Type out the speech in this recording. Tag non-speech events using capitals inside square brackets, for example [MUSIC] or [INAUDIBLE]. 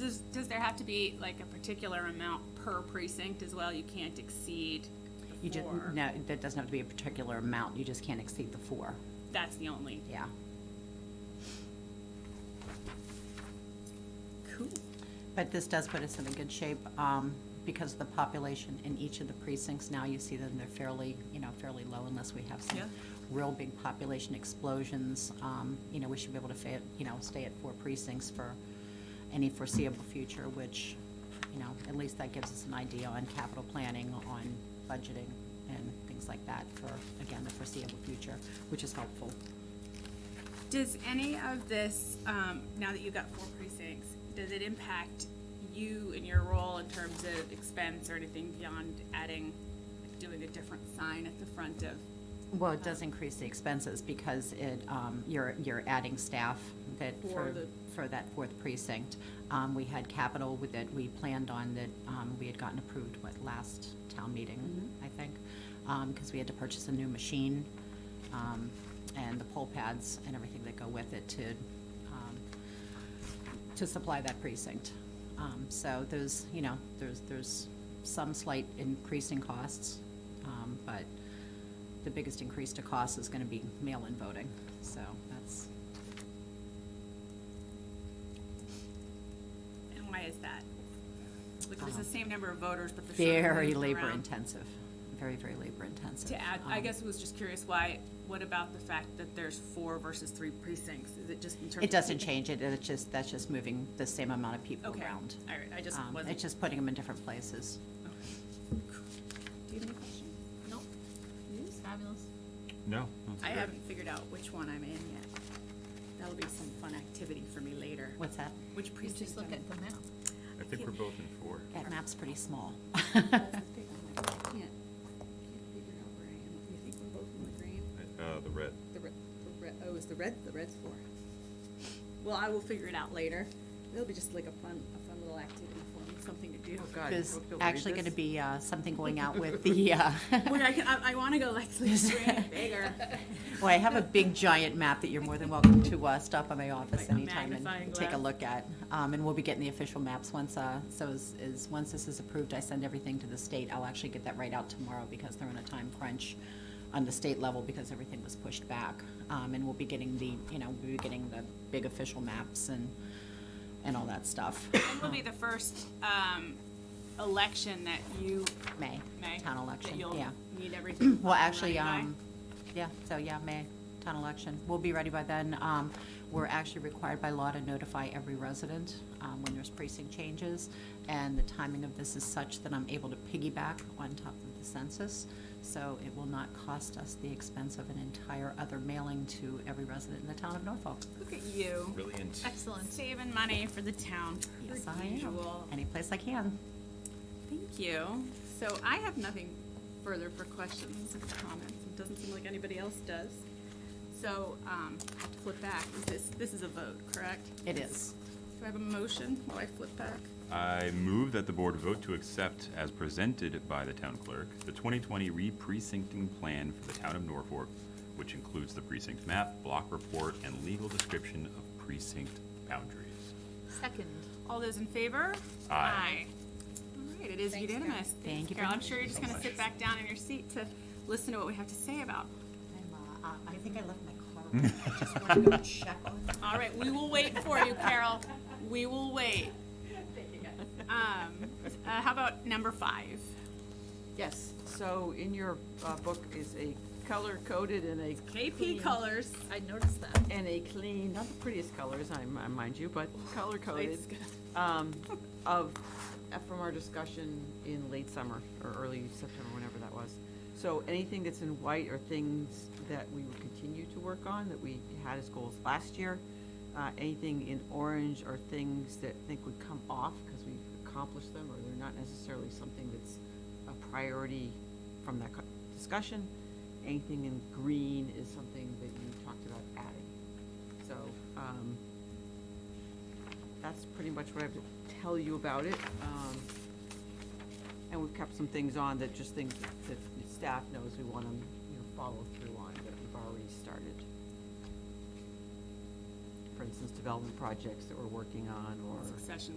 does, does there have to be like a particular amount per precinct as well? You can't exceed You the just, four? no, that doesn't have to be a particular amount, you just can't exceed the four, That's the only, yeah. cool. But this does put us in a good shape, um, because of the population in each of the precincts, now you see them, they're fairly, you know, fairly low unless we have some Yeah. real big population explosions, um, you know, we should be able to fa- you know, stay at four precincts for any foreseeable future, which, you know, at least that gives us an idea on capital planning, on budgeting, and things like that for, again, the foreseeable future, which is helpful. Does any of this, um, now that you've got four precincts, does it impact you and your role in terms of expense or anything beyond adding, like doing a different sign at the front of? Well, it does increase the expenses because it, um, you're, you're adding staff that For for, the- for that fourth precinct. Um, we had capital with that we planned on that, um, we had gotten approved, what, last town meeting, Mm-hmm. I think? Um, cause we had to purchase a new machine, um, and the poll pads and everything that go with it to, um, to supply that precinct. Um, so there's, you know, there's, there's some slight increase in costs, um, but the biggest increase to cost is gonna be mail-in voting, so that's, And why is that? Like, there's the same number of voters, but there's. sort of Um, very moving labor around. intensive, very, very labor intensive. To add, I Um, guess I was just curious why, what about the fact that there's four versus three precincts? Is it just in terms of? It doesn't change it, it's just, that's just moving the same amount of people Okay, all around. right, I just Um, wasn't. It's just putting them in different places. Do you have any questions? Nope. It's fabulous. No. I haven't figured out which one I'm in yet. That'll be some fun activity for me later. What's that? Which You precinct? just look I'm in. at the map. I think we're both in four. That map's pretty small. You think we're both in the green? Uh, the red. The red, the red, oh, is the red, the red's four. Well, I will figure it out later. It'll be just like a fun, a fun little activity for me, something to do. Oh, God. There's Brooke, you'll read actually gonna this? be, uh, something going out [LAUGHS] with the, uh, Wait, I can, I, I wanna go like, [LAUGHS] let's do it bigger. well, I have a big giant map that you're more than welcome to, uh, stop by my office Like a anytime magnifying and take a glass. look at. Um, and we'll be getting the official maps once, uh, so is, is, once this is approved, I send everything to the state. I'll actually get that right out tomorrow because they're in a time crunch on the state level because everything was pushed back. Um, and we'll be getting the, you know, we'll be getting the big official maps and, and all that stuff. When will be the first, um, election that you, May, May? town election, That yeah. you'll need everything. [CLEARS THROAT] Well, up and actually, running by? um, yeah, so yeah, May, town election. We'll be ready by then. Um, we're actually required by law to notify every resident, um, when there's precinct changes. And the timing of this is such that I'm able to piggyback on top of the census. So it will not cost us the expense of an entire other mailing to every resident in the town of Norfolk. Look at you, Brilliant. Excellent. saving money for the town, per Yes, I am. usual. Any place I can. Thank you. So I have nothing further for questions and comments. It doesn't seem like anybody else does. So, um, I have to flip back. Is this, this is a vote, correct? It is. Do I have a motion while I flip back? I move that the board vote to accept, as presented by the town clerk, the 2020 re-precincting plan for the town of Norfolk, which includes the precinct map, block report, and legal description of precinct boundaries. Second. All those in favor? Aye. All right, it is unanimous. Thank you Carol. very I'm sure you're just gonna sit back down in your seat to listen to what we have to say about. uh, I think I left my car. I just want to go check on All right, we will wait for you, Carol. We will wait. [LAUGHS] Um, uh, how about number five? Yes, so in your uh, book is a color-coded and a, KP colors. I noticed that. and a clean, not the prettiest colors, I I mind you, but color-coded It's good. um, of, uh, from our discussion in late summer, or early September, whenever that was. So anything that's in white are things that we will continue to work on, that we had as goals last year. Uh, Anything in orange are things that I think would come off, because we've accomplished them, or they're not necessarily something that's a priority from that co- discussion. Anything in green is something that you talked about adding. So, um, that's pretty much what I have to tell you about it. Um, And we've kept some things on that just things that- that staff knows we want to, you know, follow through on that we've already started. For instance, development projects that we're working on or. Succession